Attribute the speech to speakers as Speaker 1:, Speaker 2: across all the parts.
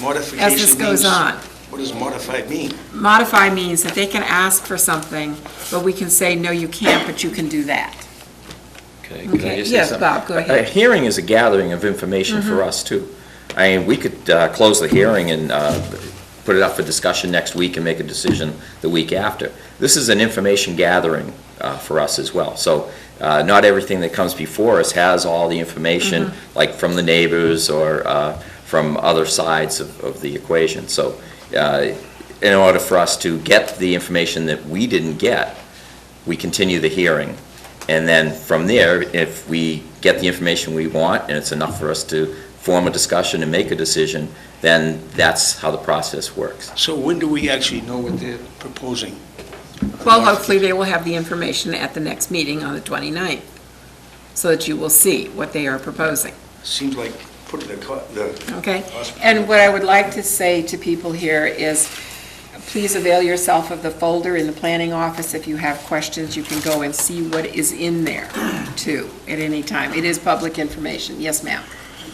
Speaker 1: Modification
Speaker 2: as this goes
Speaker 1: means-
Speaker 2: on.
Speaker 1: What does modified mean?
Speaker 2: Modify means that they can ask for something, but we can say, no, you can't, but you can do that.
Speaker 3: Okay, can I
Speaker 2: Okay,
Speaker 3: just say
Speaker 2: yes,
Speaker 3: something?
Speaker 2: Bob, go
Speaker 3: A-
Speaker 2: ahead. Mm-hmm.
Speaker 3: A hearing is a gathering of information for us, too. I mean, we could uh, close the hearing and uh, put it up for discussion next week and make a decision the week after. This is an information gathering uh, for us as well. So uh, not everything that comes before us has all the information,
Speaker 2: Mm-hmm.
Speaker 3: like from the neighbors or uh, from other sides of of the equation. So uh, in order for us to get the information that we didn't get, we continue the hearing. And then from there, if we get the information we want and it's enough for us to form a discussion and make a decision, then that's how the process works.
Speaker 1: So when do we actually know what they're proposing?
Speaker 2: Well, hopefully, they will have the information at the next meeting on the 29th, so that you will see what they are proposing,
Speaker 1: Seems like putting the, co- the,
Speaker 2: okay? And what I would like to say to people here is, please avail yourself of the folder in the planning office. If you have questions, you can go and see what is in there, too, at any time. It is public information. Yes, ma'am?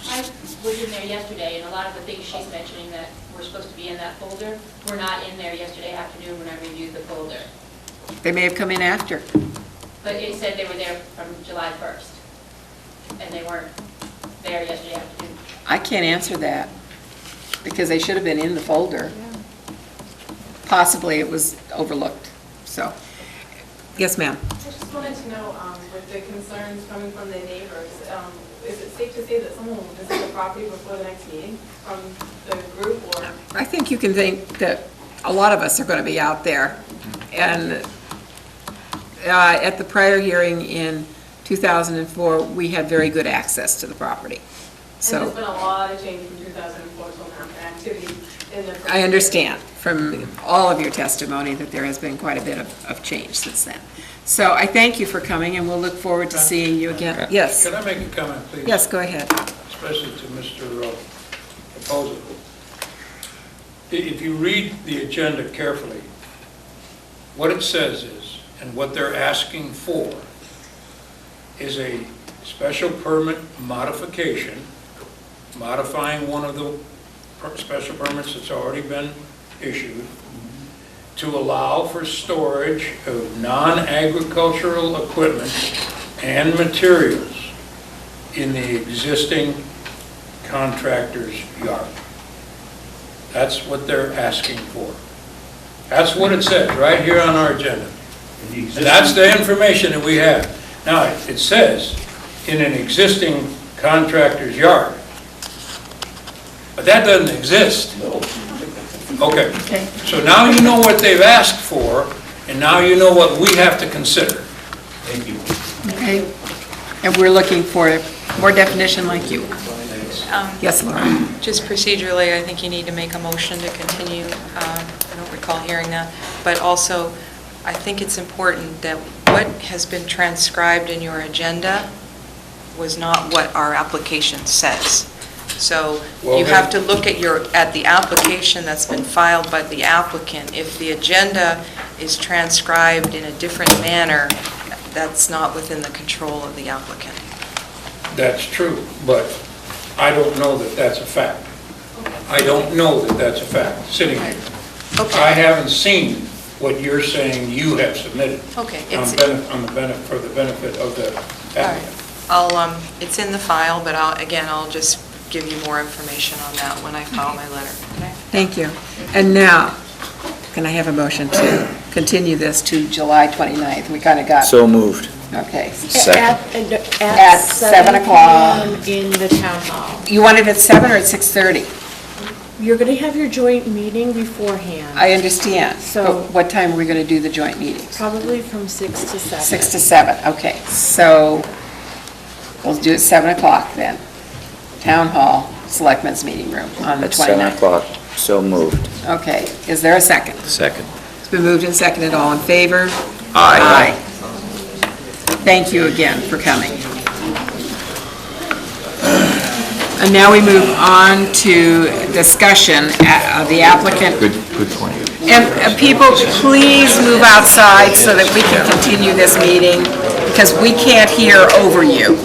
Speaker 4: I was in there yesterday, and a lot of the things she's mentioning that were supposed to be in that folder were not in there yesterday afternoon when I reviewed the folder.
Speaker 2: They may have come in after.
Speaker 4: But it said they were there from July 1st, and they weren't there yesterday afternoon.
Speaker 2: I can't answer that, because they should have been in the folder. Possibly it was overlooked, so. Yes, ma'am.
Speaker 5: I just wanted to know, um, with the concerns coming from the neighbors, um, is it safe to say that someone will visit the property before the next meeting from the group or?
Speaker 2: I think you can think that a lot of us are going to be out there. And uh, at the prior hearing in 2004, we had very good access to the property.
Speaker 5: And there's
Speaker 2: So
Speaker 5: been a lot of change from 2004 till now, and activity in the.
Speaker 2: I understand from all of your testimony that there has been quite a bit of, of change since then. So I thank you for coming, and we'll look forward to seeing you again. Yes,
Speaker 6: Can I make a comment, please?
Speaker 2: yes, go ahead.
Speaker 6: Especially to Mr. Reposo. If you read the agenda carefully, what it says is, and what they're asking for, is a special permit modification, modifying one of the per- special permits that's already been issued, to allow for storage of non-agricultural equipment and materials in the existing contractor's yard. That's what they're asking for. That's what it says, right here on our agenda. And that's the information that we have. Now, it says, in an existing contractor's yard. But that doesn't exist. Okay. So now you know what they've asked for, and now you know what we have to consider.
Speaker 1: thank you.
Speaker 2: Okay, and we're looking for more definition like you. Yes, Laura?
Speaker 7: Um, Just procedurally, I think you need to make a motion to continue. Um, I don't recall hearing that. But also, I think it's important that what has been transcribed in your agenda was not what our application says. So
Speaker 6: Well,
Speaker 7: you have to look at your, at the application that's been filed by the applicant. If the agenda is transcribed in a different manner, that's not within the control of the applicant.
Speaker 6: That's true, but I don't know that that's a fact. I don't know that that's a fact, sitting here.
Speaker 7: Okay.
Speaker 6: I haven't seen what you're saying you have submitted.
Speaker 7: Okay,
Speaker 6: On
Speaker 7: it's-
Speaker 6: benef- on the benefit, for the benefit of the
Speaker 7: All right.
Speaker 6: applicant.
Speaker 7: I'll, um, it's in the file, but I'll, again, I'll just give you more information on that when I file my letter. Okay.
Speaker 2: Thank you. And now, can I have a motion to continue this to July 29th? We kind of got,
Speaker 3: So moved.
Speaker 2: okay.
Speaker 8: At- At
Speaker 2: At
Speaker 8: at
Speaker 2: seven
Speaker 8: 7
Speaker 2: o'clock.
Speaker 8: o'clock. In the town hall.
Speaker 2: You want it at 7 or at 6:30?
Speaker 8: You're going to have your joint meeting beforehand,
Speaker 2: I understand.
Speaker 8: So-
Speaker 2: But what time are we going to do the joint meeting?
Speaker 8: probably from 6 to 7.
Speaker 2: 6 to 7, okay. So we'll do it 7 o'clock then. Town Hall, Selectmen's Meeting Room on the
Speaker 3: At 7
Speaker 2: 29th.
Speaker 3: o'clock, so moved.
Speaker 2: Okay, is there a second?
Speaker 3: Second.
Speaker 2: It's been moved and seconded, all in favor?
Speaker 3: Aye.
Speaker 2: Thank you again for coming. And now we move on to discussion uh, of the applicant. Good, good point. And uh, people, please move outside so that we can continue this meeting, because we can't hear over you.